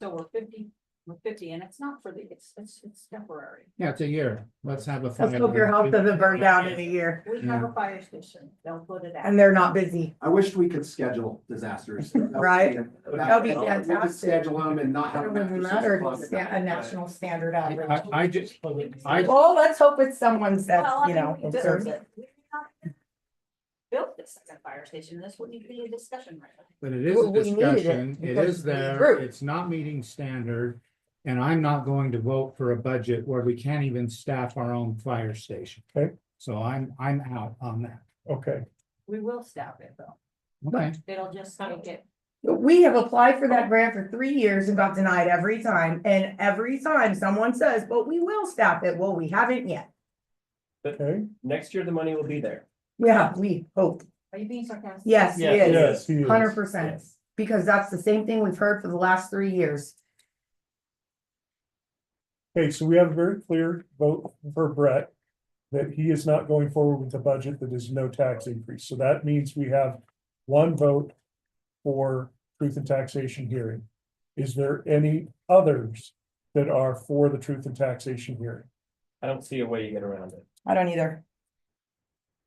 So we're fifty, we're fifty, and it's not for the, it's, it's, it's temporary. Yeah, it's a year. Let's have a. Let's fire hope your house drill. doesn't burn down in a year We have a fire station, they'll put it out. and they're not busy. I wish we could schedule disasters. Right. That be We could fantastic. schedule them and not have. It them after wouldn't six matter o'clock if it's at sta- night. a national standard I, average. I just, I, Well, let's hope it's someone's that, Well, I you mean, know, we just- deserves it. we haven't Built this second fire station, this wouldn't be a discussion right now. but it is We- a we needed it discussion. It because is we there. grew. It's not meeting standard. And I'm not going to vote for a budget where we can't even staff our own fire station. Okay. So I'm, I'm out on that. Okay, We will stop it though, Okay, it'll just make it, We have applied for that grant for three years and got denied every time. And every time someone says, but we will staff it. Well, we haven't yet. okay. Next year, the money will be there. Yeah, we hope. are you being sarcastic? Yes, Yeah, it is. he is. Hundred percent. Because that's the same thing we've heard for the last three years. Okay, so we have a very clear vote for Brett. That he is not going forward with the budget that is no tax increase, so that means we have one vote. For truth and taxation hearing. Is there any others that are for the truth and taxation hearing? I don't see a way you get around it. I don't either.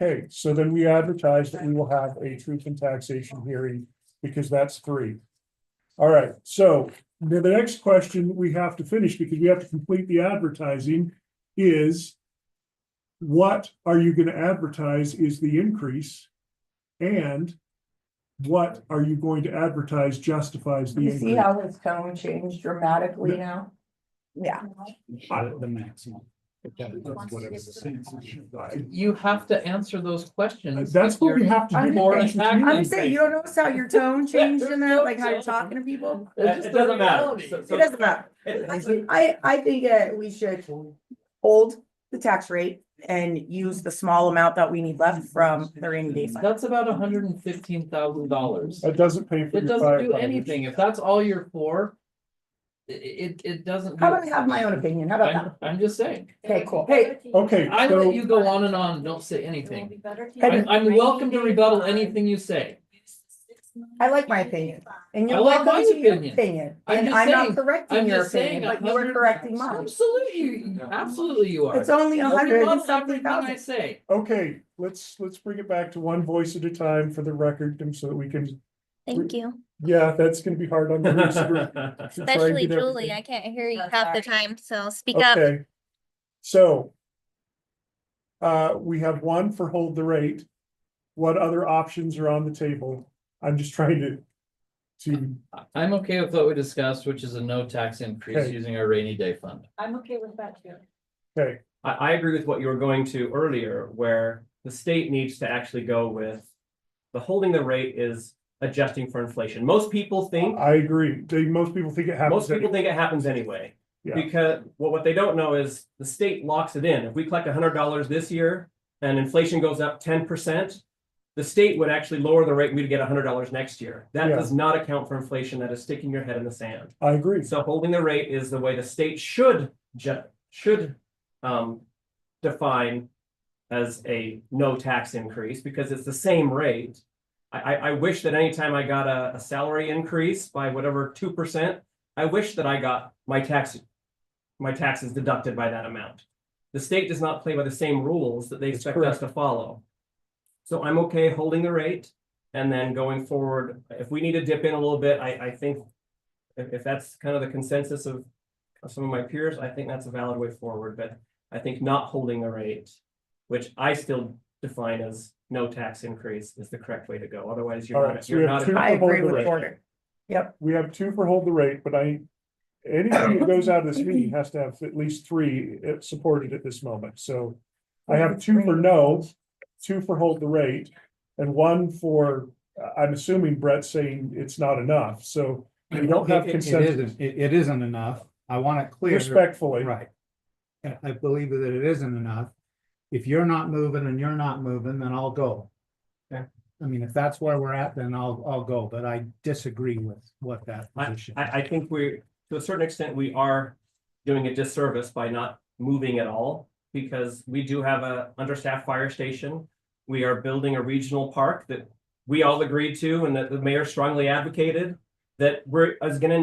Okay, so then we advertise that we will have a truth and taxation hearing, because that's three. All right, so the, the next question we have to finish, because we have to complete the advertising, is. What are you gonna advertise is the increase? And what are you going to advertise justifies the You see increase? how his tone changed dramatically now? Yeah, the maximum. You have to answer those questions. Uh, That's what we have to I'm do. just Or saying- attack I'm them. saying, you don't notice how your tone changed in that, like how you're Yeah. talking to people? It's It just it the doesn't matter. reality. So- It so- doesn't matter. I, I think uh, we should hold the tax rate and use the small amount that we need left from the rainy day fund. That's about hundred and fifteen thousand dollars. That doesn't pay for. It your doesn't do firefighters. anything. If that's all you're for. i- i- It, it, doesn't. How do about I it. have my own opinion? How about I'm, that? I'm just saying. Okay, cool. oh. Hey. Okay, I so- let you go on and on. Don't say anything. I'm, I'm welcome to rebuttal anything you say. I like my opinion. And you're I like welcome my to your opinion. opinion. I'm And just I'm not saying- correcting I'm your just saying opinion, but you 100 were correcting mine. Absolutely, you- absolutely you are. It's only a You'll hundred rebuttal and something everything I thousand. say. Okay, let's, let's bring it back to one voice at a time for the record and so that we can, Thank you, yeah, that's gonna be hard on. the listener to try and especially get Julie. I everything. can't hear you Oh, half the sorry. time, so speak up. Okay. So. Uh, we have one for hold the rate. What other options are on the table? I'm just trying to. To, I- I'm okay with what we discussed, which is a no tax increase Okay. using our rainy day fund. I'm okay with that too. okay, I, I agree with what you were going to earlier, where the state needs to actually go with the holding the rate is adjusting for inflation. Most people think, I agree. They, most people think it happens. most people think it happens anyway. Yeah. Because what, what they don't know is the state locks it in. If we collect hundred dollars this year and inflation goes up ten percent, the state would actually lower the rate and we'd get hundred dollars next year. That Yeah. does not account for inflation. That is sticking your head in the sand. I agree. So holding the rate is the way the state should ju- should um define as a no tax increase because it's the same rate. I I I wish that anytime I got a a salary increase by whatever two percent, I wish that I got my tax my taxes deducted by that amount. The state does not play by the same rules that they That's expect us to follow. So I'm okay holding the rate and then going forward, if we need to dip in a little bit, I I think if, if that's kind of the consensus of, of some of my peers, I think that's a valid way forward, but I think not holding the rate, which I still define as no tax increase is the correct way to go. Otherwise, All you're right, not, so we you're have not. two- I agree Hold the with rate. Porter. we have two for hold the rate, but I. Anything that goes out of this meeting has to have at least three uh, supported at this moment, so. I have two for no, two for hold the rate, and one for, uh, I'm assuming Brett's saying it's not enough, so. We don't have It- it- It consensus isn't, it, it isn't enough. I want it clear. respectfully, Right. And I believe that it isn't enough. If you're not moving and you're not moving, then I'll go. Okay. I mean, if that's where we're at, then I'll, I'll go, but I disagree with what that position. is. I, I think we're, to a certain extent, we are doing a disservice by not moving at all. Because we do have a understaffed fire station. We are building a regional park that we all agreed to and that the mayor strongly advocated. That we're, is gonna